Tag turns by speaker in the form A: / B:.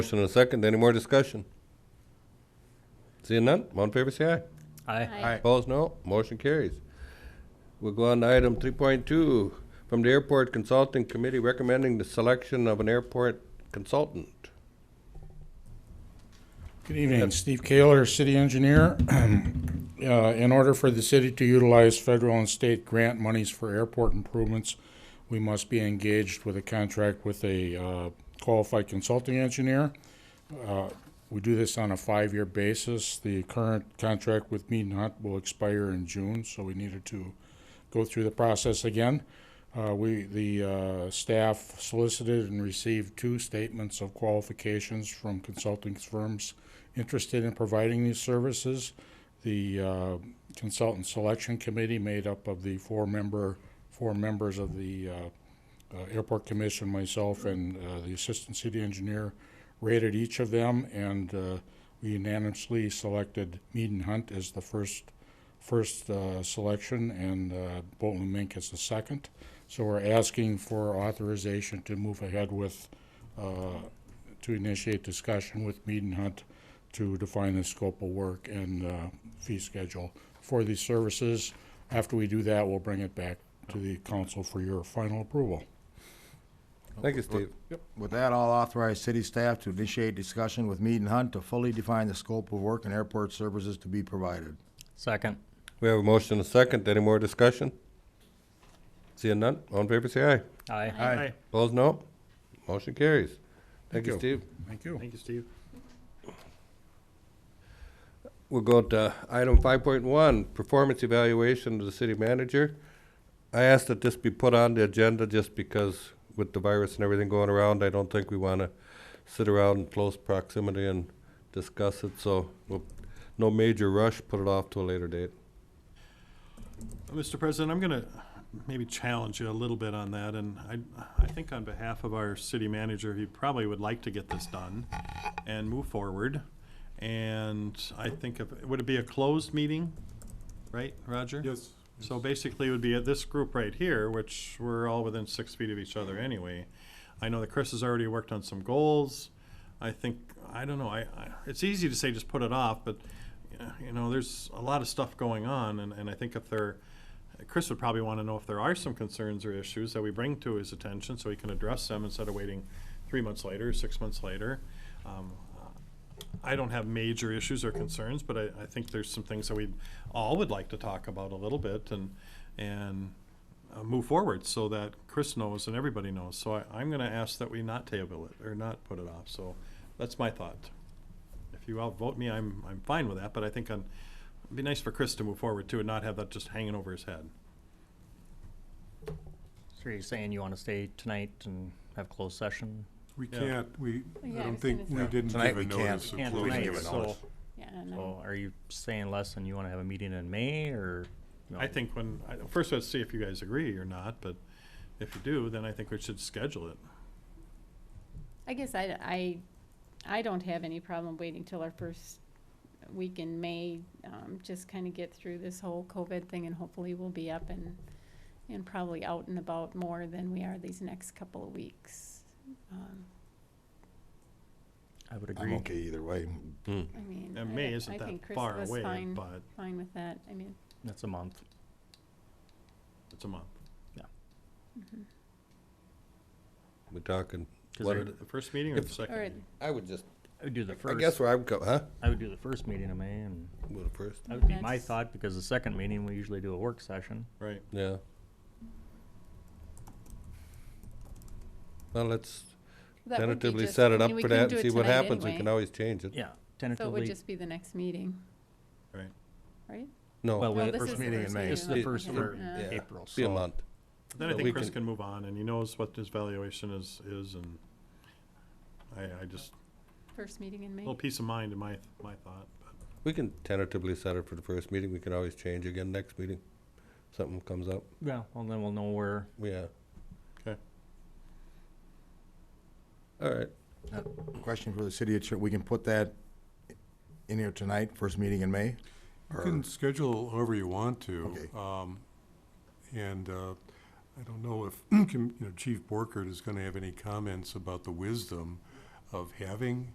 A: Motion and a second, any more discussion? Seeing none, all in favor, say aye.
B: Aye.
A: Opposed, no. Motion carries. We'll go on to item three point two, from the Airport Consulting Committee recommending the selection of an airport consultant.
C: Good evening, Steve Kaler, City Engineer. Uh, In order for the city to utilize federal and state grant monies for airport improvements, we must be engaged with a contract with a uh, qualified consulting engineer. Uh, We do this on a five-year basis. The current contract with Mead Hunt will expire in June, so we needed to go through the process again. Uh, We, the uh, staff solicited and received two statements of qualifications from consulting firms interested in providing these services. The uh, consultant selection committee made up of the four member, four members of the uh, uh, airport commission, myself, and uh, the assistant city engineer rated each of them, and uh, we unanimously selected Mead and Hunt as the first first uh, selection and uh, Bolton and Mink is the second. So we're asking for authorization to move ahead with, uh, to initiate discussion with Mead and Hunt to define the scope of work and uh, fee schedule for these services. After we do that, we'll bring it back to the council for your final approval.
A: Thank you, Steve.
D: With that, I'll authorize city staff to initiate discussion with Mead and Hunt to fully define the scope of work and airport services to be provided.
B: Second.
A: We have a motion and a second, any more discussion? Seeing none, all in favor, say aye.
B: Aye.
D: Aye.
A: Opposed, no. Motion carries. Thank you,
C: you.
A: Steve.
C: Thank you.
E: Thank you, Steve.
A: We'll go to item five point one, performance evaluation of the city manager. I asked that this be put on the agenda just because with the virus and everything going around, I don't think we wanna sit around in close proximity and discuss it, so we'll- no major rush, put it off to a later date.
E: Mr. President, I'm going to maybe challenge you a little bit on that, and I, I think on behalf of our city manager, he probably would like to get this done and move forward. And I think, if- would it be a closed meeting, right, Roger? Yes. So basically, it would be at this group right here, which we're all within six feet of each other anyway. I know that Chris has already worked on some goals. I think, I don't know, I, I, it's easy to say just put it off, but, you know, there's a lot of stuff going on, and, and I think if there, Chris would probably want to know if there are some concerns or issues that we bring to his attention so he can address them instead of waiting three months later, six months later. Um, I don't have major issues or concerns, but I, I think there's some things that we all would like to talk about a little bit and, and uh, move forward so that Chris knows and everybody knows. So I, I'm gonna ask that we not table it or not put it off, so that's my thought. If you outvote me, I'm, I'm fine with that, but I think i it'd be nice for Chris to move forward too and not have that just hanging over his head.
B: So you're saying you want to stay tonight and have closed session?
F: We
E: Yeah.
F: can't, we,
G: Yeah,
F: I
G: I
F: don't
G: was
F: think,
G: gonna
F: we didn't
G: say.
F: give
D: Tonight
F: a
D: we can't.
F: notice of
D: Yeah,
B: Can't
F: closing.
D: tonight.
B: tonight,
D: it
B: so,
D: notice.
G: Yeah, and
B: so
G: I'm-
B: are you saying less and you want to have a meeting in May or? no?
E: I think when, I, first let's see if you guys agree or not, but if you do, then I think we should schedule it.
G: I guess I, I, I don't have any problem waiting till our first week in May, um, just kind of get through this whole COVID thing and hopefully we'll be up and, and probably out and about more than we are these next couple of weeks. Um,
B: I would
D: I'm
B: agree.
D: okay either way.
G: I mean.
E: And May
G: I-
E: isn't
G: I think
E: that
G: Chris
E: far
G: was
E: away,
G: fine-
E: but
G: Fine with that, I mean,
B: That's a month.
E: it's a month.
A: We're talking.
B: Is
A: what
B: there-
A: it-
E: The first meeting or the second
G: or,
E: meeting?
A: I would just,
B: I would do the
A: I guess
B: first,
A: where I would go, huh?
B: I would do the first meeting in May and
A: Well, first,
B: that would be my
G: That's-
B: thought because the second meeting, we usually do a work session.
E: Right.
A: yeah. Well, let's
G: that would be
A: tentatively
G: just-
A: set
G: I
A: it
G: mean,
A: up
G: we
A: for
G: couldn't
A: that
G: do
A: and
G: it
A: see what
G: tonight
A: happens. We
G: anyway,
A: can always change it.
B: Yeah,
G: So it would
B: tentatively.
G: just be the next meeting,
E: Right.
G: right?
A: No.
B: Well,
G: No,
B: we-
G: this
D: First
G: is the
D: meeting in May.
B: this is the
A: It-
B: first
G: okay.
B: for
G: Yeah. Uh,
A: Yeah.
B: April,
A: Be a
B: so
A: month.
E: Then I
A: So
E: think
A: we
E: Chris
A: can-
E: can move on and he knows what his valuation is, is and I, I just,
G: First meeting in
E: a
G: May.
E: little peace of mind in my, my thought. but
A: We can tentatively set it for the first meeting, we can always change again next meeting, something comes up,
B: yeah, well, then we'll know where,
A: yeah.
E: 'Kay.
A: All right,
D: Question for the city attorney, we can put that in here tonight, first meeting in May?
F: You
D: Or-
F: can schedule however you want to.
D: Okay.
F: um, And uh, I don't know if, com- you know, Chief Borkert is going to have any comments about the wisdom of having